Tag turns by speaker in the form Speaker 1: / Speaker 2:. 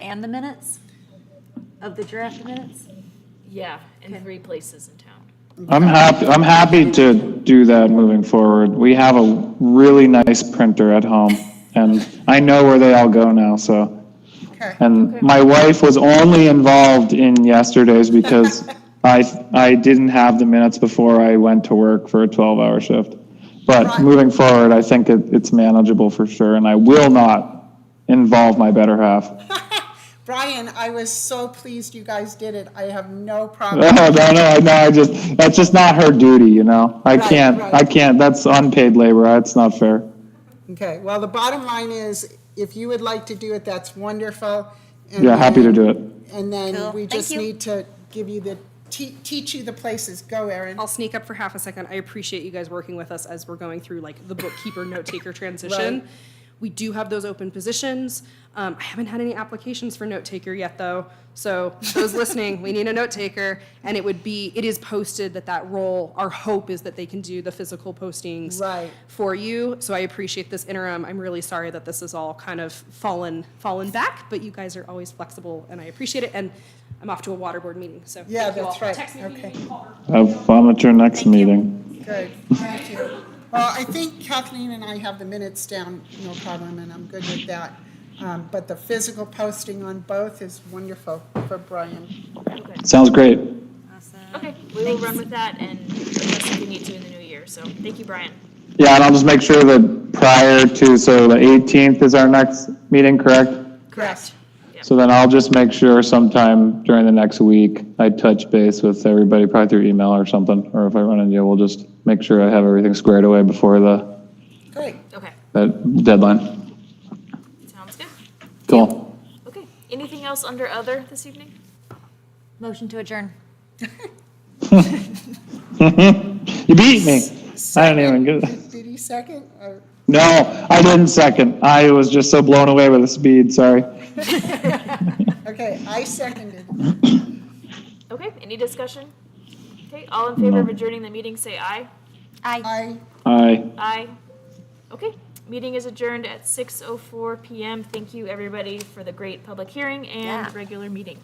Speaker 1: and the minutes of the draft minutes?
Speaker 2: Yeah, in
Speaker 1: Okay.
Speaker 2: three places in town.
Speaker 3: I'm happy, I'm happy to do that moving forward. We have a really nice printer at home, and I know where they all go now, so.
Speaker 4: Okay.
Speaker 3: And my wife was only involved in yesterday's because I, I didn't have the minutes before I went to work for a 12-hour shift. But
Speaker 4: Right.
Speaker 3: moving forward, I think it, it's manageable for sure, and I will not involve my better half.
Speaker 4: Brian, I was so pleased you guys did it. I have no problem.
Speaker 3: No, no, no, no, I just, that's just not her duty, you know? I
Speaker 4: Right,
Speaker 3: can't,
Speaker 4: right.
Speaker 3: I can't, that's unpaid labor, that's not fair.
Speaker 4: Okay, well, the bottom line is, if you would like to do it, that's wonderful. And
Speaker 3: Yeah, happy to
Speaker 4: then-
Speaker 3: do it.
Speaker 1: Cool.
Speaker 4: And then we
Speaker 1: Thank
Speaker 4: just
Speaker 1: you.
Speaker 4: need to give you the, te- teach you the places. Go, Erin.
Speaker 5: I'll sneak up for half a second. I appreciate you guys working with us as we're going through like the bookkeeper note taker transition.
Speaker 4: Right.
Speaker 5: We do have those open positions. Um, I haven't had any applications for note taker yet though. So those listening, we need a note taker and it would be, it is posted that that role, our hope is that they can do the physical postings
Speaker 4: Right.
Speaker 5: for you. So I appreciate this interim. I'm really sorry that this is all kind of fallen, fallen back, but you guys are always flexible and I appreciate it. And I'm off to a water board meeting, so.
Speaker 4: Yeah,
Speaker 5: thank you
Speaker 4: that's
Speaker 5: all.
Speaker 4: right.
Speaker 5: Text me if you need
Speaker 4: Okay.
Speaker 5: me, call or
Speaker 3: Have fun at your next meeting.
Speaker 4: Good, thank you. Well, I think Kathleen and I have the minutes down, no problem, and I'm good with that. Um, But the physical posting on both is wonderful for Brian.
Speaker 3: Sounds great.
Speaker 2: Okay, we will run with that and adjust if we need to in the new year. So thank you, Brian.
Speaker 3: Yeah, and I'll just make sure that prior to, so the 18th is our next meeting, correct?
Speaker 4: Correct.
Speaker 3: So then I'll just make sure sometime during the next week, I touch base with everybody, probably through email or something, or if I run into you, we'll just make sure I have everything squared away before the,
Speaker 4: Great.
Speaker 2: Okay,
Speaker 3: that deadline.
Speaker 2: sounds good.
Speaker 3: Cool.
Speaker 2: Okay, anything else under other this evening?
Speaker 1: Motion to adjourn.
Speaker 3: You beat me. I didn't even get it.
Speaker 4: Did he second? Oh, or-
Speaker 3: No, I didn't second. I was just so blown away by the speed, sorry.
Speaker 4: Okay, I seconded.
Speaker 2: Okay, any discussion? Okay, all in favor of adjourning the meeting, say aye.
Speaker 1: Aye.
Speaker 4: I,
Speaker 3: Aye.
Speaker 2: Aye. Okay, meeting is oh adjourned at 6:04 PM. Thank you, everybody, for the great public hearing
Speaker 1: Yeah.
Speaker 2: and regular meeting.